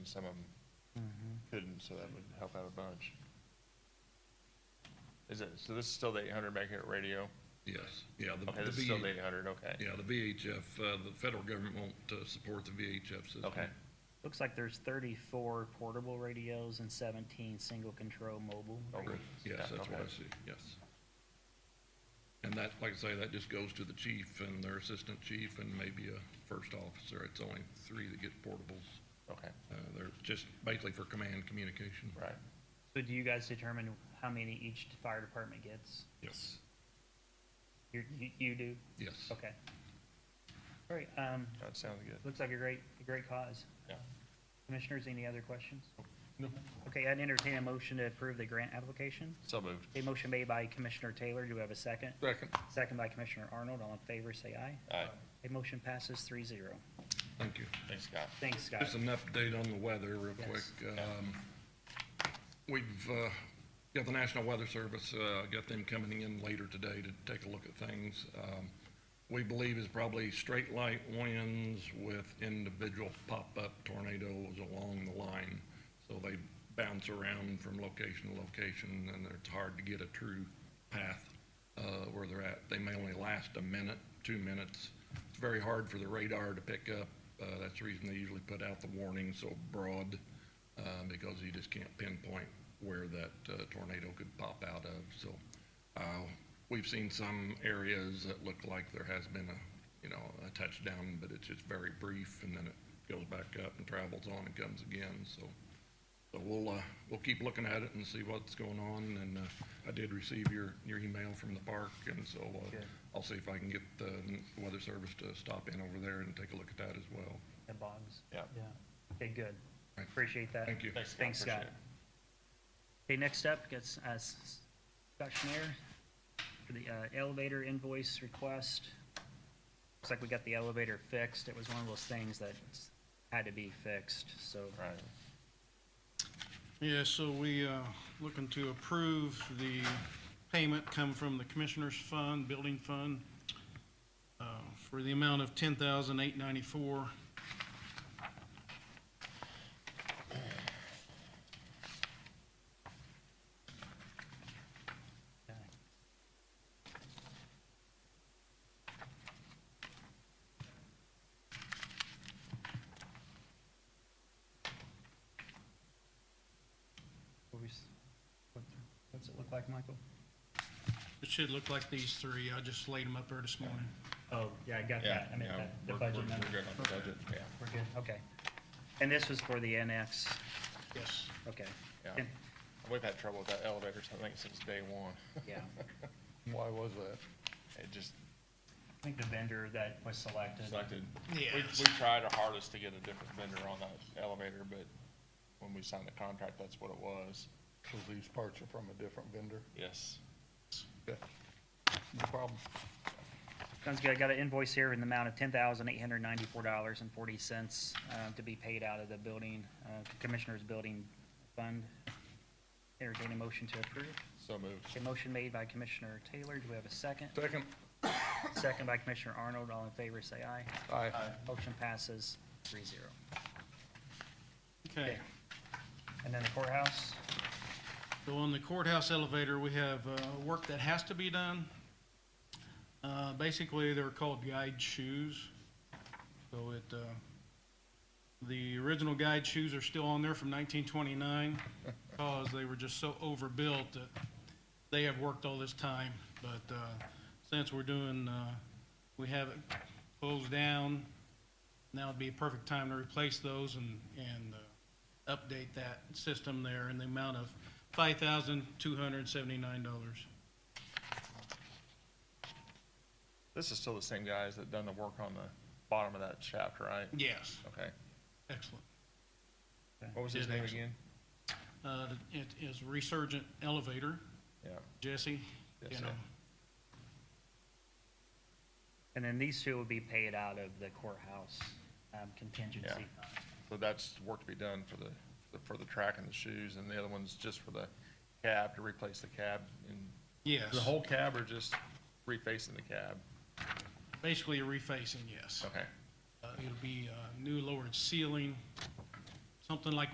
some of them couldn't, so that would help out a bunch. Is it, so this is still the eight hundred megahertz radio? Yes, yeah, the, Okay, the this is still VH the eight hundred, okay. yeah, the VHF, uh, the federal government won't, uh, support the VHF system. Okay, Looks like there's thirty-four portable radios and seventeen single control mobile. Oh, Right, Yeah, Yes, that's what okay. I see, yes. And that, like I say, that just goes to the chief and their assistant chief and maybe a first officer. It's only three that get portables. okay, Uh, they're just basically for command communication. right. So do you guys determine how many each fire department gets? Yes. You're- You, you do? Yes. Okay. All right, um, That sounds good. looks like a great, a great cause. Yeah. Commissioners, any other questions? No. Okay, I'd entertain a motion to approve the grant application. So moved. A motion made by Commissioner Taylor. Do we have a second? Second. Second by Commissioner Arnold. All in favor, say aye. Aye. A motion passes three zero. Thank you. Thanks, Scott. Thanks, Scott. Just an update on the weather real Yes. quick. Um, We've uh, got the National Weather Service, uh, got them coming in later today to take a look at things. Um, We believe is probably straight light winds with individual pop-up tornadoes along the line. So they bounce around from location to location and it's hard to get a true path uh, where they're at. They may only last a minute, two minutes. It's very hard for the radar to pick up. Uh, That's the reason they usually put out the warning so broad uh, because you just can't pinpoint where that uh, tornado could pop out of. So uh, we've seen some areas that look like there has been a, you know, a touchdown, but it's just very brief and then it goes back up and travels on and comes again. So, so we'll, uh, we'll keep looking at it and see what's going on. And uh, I did receive your, your email from the park and so uh, Good. I'll see if I can get the weather service to stop in over there and take a look at that as well. The bogs. Yeah. Yeah. Okay, good. Thank- Appreciate that. Thank you. Thanks, Scott. Thanks, Scott. Appreciate it. Okay, next up, gets uh, S- Scott Schneer for the uh, elevator invoice request. Looks like we got the elevator fixed. It was one of those things that had to be fixed, so. Right. Yeah, so we, uh, looking to approve the payment come from the Commissioners Fund, Building Fund, uh, for the amount of ten thousand eight ninety-four. yeah. What we s- what- What's it look like, Michael? It should look like these three. I just laid them up there this morning. Oh, yeah, I got Yeah, that. I meant yeah, that, the we're- budget we're- number. We're good on the budget, yeah. We're good, okay. And this was for the NX, Yes. okay. Yeah. And- We've had trouble with that elevator, I think, since day one. Yeah. Why was that? It just I think the vendor that was selected. selected. Yeah. We, we tried our hardest to get a different vendor on that elevator, but when we signed the contract, that's what it was. So these parts are from a different vendor? Yes. Yeah. No problem. Sounds good. I got an invoice here in the amount of ten thousand eight hundred ninety-four dollars and forty cents, uh, to be paid out of the building, uh, Commissioner's Building Fund. Entertain a motion to approve. So moved. A motion made by Commissioner Taylor. Do we have a second? Second. Second by Commissioner Arnold. All in favor, say aye. Aye. Motion passes three zero. Okay. And then the courthouse? So on the courthouse elevator, we have uh, work that has to be done. Uh, Basically, they're called guide shoes. So it, uh, the original guide shoes are still on there from 1929 because they were just so overbuilt that they have worked all this time. But uh, since we're doing, uh, we have it closed down, now would be a perfect time to replace those and, and uh, update that system there in the amount of five thousand two hundred seventy-nine dollars. This is still the same guys that done the work on the bottom of that shaft, right? Yes, Okay. excellent. What was his Yeah, name thanks. again? Uh, it is Resurgent Elevator, Yeah. Jesse, Yes, you sir. know, And then these two will be paid out of the courthouse um, contingency. So that's work to be done for the, for the track and the shoes, and the other one's just for the cab, to replace the cab. And yes. The whole cab or just refacing the cab? Basically a refacing, yes. Okay. Uh, it'll be, uh, new lowered ceiling, something like